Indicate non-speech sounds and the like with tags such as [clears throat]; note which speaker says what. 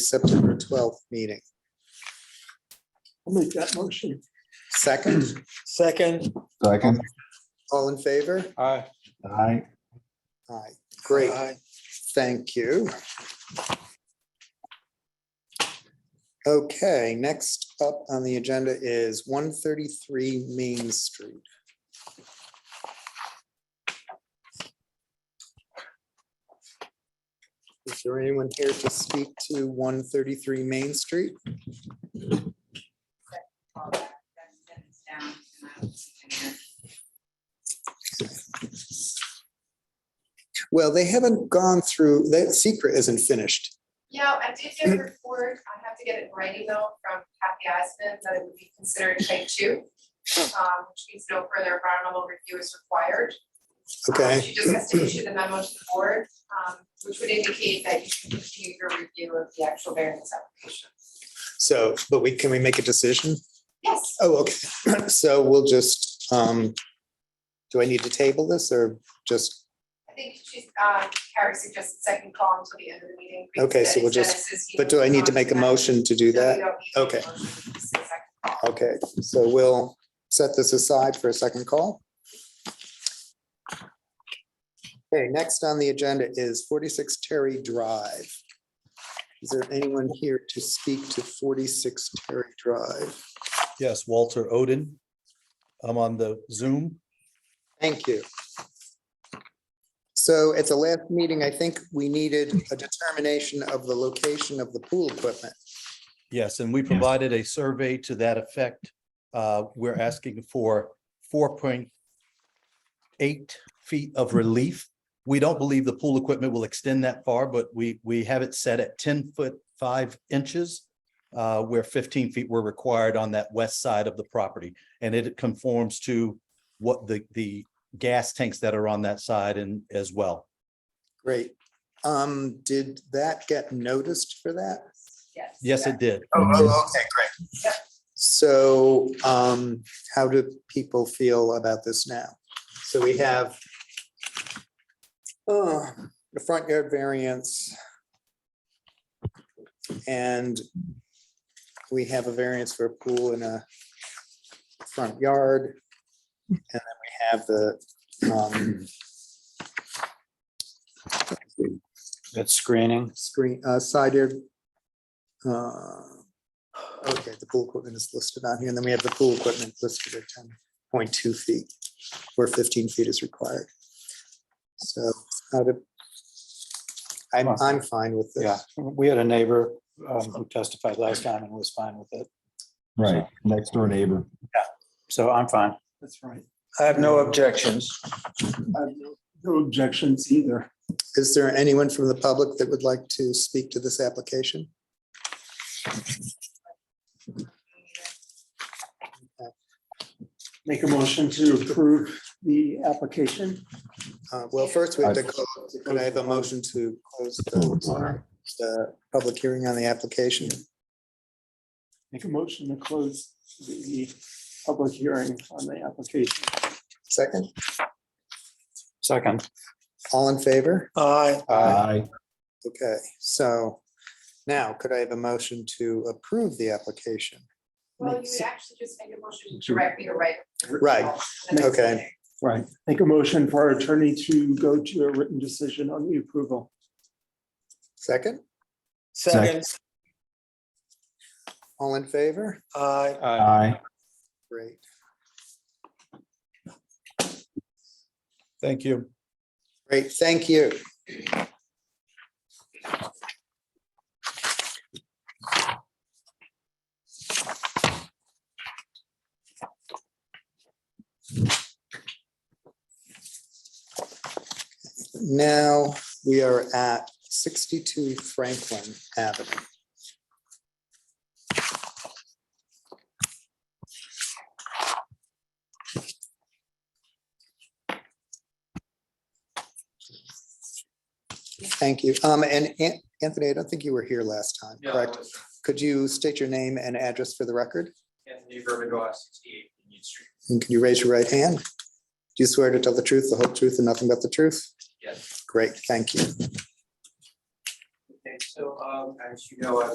Speaker 1: September twelfth meeting.
Speaker 2: I'll make that motion.
Speaker 1: Second,
Speaker 2: [clears throat] Second.
Speaker 3: Second.
Speaker 1: all in favor?
Speaker 2: Aye.
Speaker 3: Aye.
Speaker 1: Aye, great, thank you. Okay, next up on the agenda is one thirty-three Main Street. Is there anyone here to speak to one thirty-three Main Street?
Speaker 4: call that, that sentence down, and I was thinking that
Speaker 1: Well, they haven't gone through, that secret isn't finished.
Speaker 4: Yeah, I did get a report, I have to get it in writing though, from Kathy Eisman, that it would be considered type two. Um, which means no further environmental review is required. Um,
Speaker 1: Okay,
Speaker 4: She just has to issue the memo to the board, um, which would indicate that you should continue your review of the actual variance application.
Speaker 1: so, but we, can we make a decision?
Speaker 4: Yes,
Speaker 1: Oh, okay. [clears throat] So we'll just, um, do I need to table this or just,
Speaker 4: I think she's, um, Carrie suggested second call until the end of the meeting. because
Speaker 1: Okay, so
Speaker 4: that
Speaker 1: we'll
Speaker 4: is-
Speaker 1: just-
Speaker 4: that is- he
Speaker 1: but do I need to
Speaker 4: moved on
Speaker 1: make a
Speaker 4: that.
Speaker 1: motion to do
Speaker 4: No, you
Speaker 1: that?
Speaker 4: don't need to make a
Speaker 1: Okay.
Speaker 4: motion, just a second call.
Speaker 1: Okay, so we'll set this aside for a second call. Okay, next on the agenda is forty-six Terry Drive. Is there anyone here to speak to forty-six Terry Drive?
Speaker 5: Yes, Walter Odin. I'm on the Zoom.
Speaker 1: Thank you. So at the last meeting, I think we needed a determination of the location of the pool equipment.
Speaker 5: Yes, and we provided a survey to that effect. Uh, We're asking for four point eight feet of relief. We don't believe the pool equipment will extend that far, but we, we have it set at ten foot five inches, uh, where fifteen feet were required on that west side of the property. And it conforms to what the, the gas tanks that are on that side and as well.
Speaker 1: Great. Um, did that get noticed for that?
Speaker 4: Yes.
Speaker 5: Yes, it did.
Speaker 1: Oh, oh, okay,
Speaker 4: Yep.
Speaker 1: great. So, um, how do people feel about this now? So we have uh, the front yard variance. And we have a variance for a pool in a front yard. And then we have the, um,
Speaker 2: That screening.
Speaker 1: screen, uh, side yard. uh, Okay, the pool equipment is listed on here, and then we have the pool equipment listed at ten point two feet, where fifteen feet is required. So, how to. I'm, I'm fine with
Speaker 2: Yeah,
Speaker 1: this.
Speaker 2: we had a neighbor um, who testified last time and was fine with it,
Speaker 3: Right, next door neighbor.
Speaker 2: so I'm fine.
Speaker 6: That's right.
Speaker 2: I have no objections.
Speaker 6: I have no- No objections either.
Speaker 1: Is there anyone from the public that would like to speak to this application?
Speaker 6: Make a motion to approve the application.
Speaker 1: Uh, Well, first we have to, close- could I have a motion to close the, the public hearing on the application?
Speaker 6: Make a motion to close the public hearing on the application.
Speaker 1: Second,
Speaker 2: Second.
Speaker 1: all in favor?
Speaker 6: Aye.
Speaker 2: Uh,
Speaker 3: Aye.
Speaker 1: Okay, so now could I have a motion to approve the application?
Speaker 4: Well, you would actually just make a motion to direct me to write. a-
Speaker 1: Right, okay.
Speaker 6: Right. Make a motion for our attorney to go to a written decision on the approval.
Speaker 1: Second,
Speaker 3: Second.
Speaker 1: all in favor?
Speaker 6: Aye.
Speaker 2: uh,
Speaker 3: Aye.
Speaker 1: Great.
Speaker 5: Thank you.
Speaker 1: Great, thank you. Now, we are at sixty-two Franklin Avenue. Thank you. Um, and An- Anthony, I don't think you were here last time,
Speaker 7: Yeah,
Speaker 1: correct?
Speaker 7: I was
Speaker 1: Could you state your name and address for the record?
Speaker 7: Anthony Verbiage, sixty-eight Union Street.
Speaker 1: And can you raise your right hand? Do you swear to tell the truth, the whole truth, and nothing but the truth?
Speaker 7: Yes.
Speaker 1: Great, thank you.
Speaker 7: Okay, so, um, as you know, I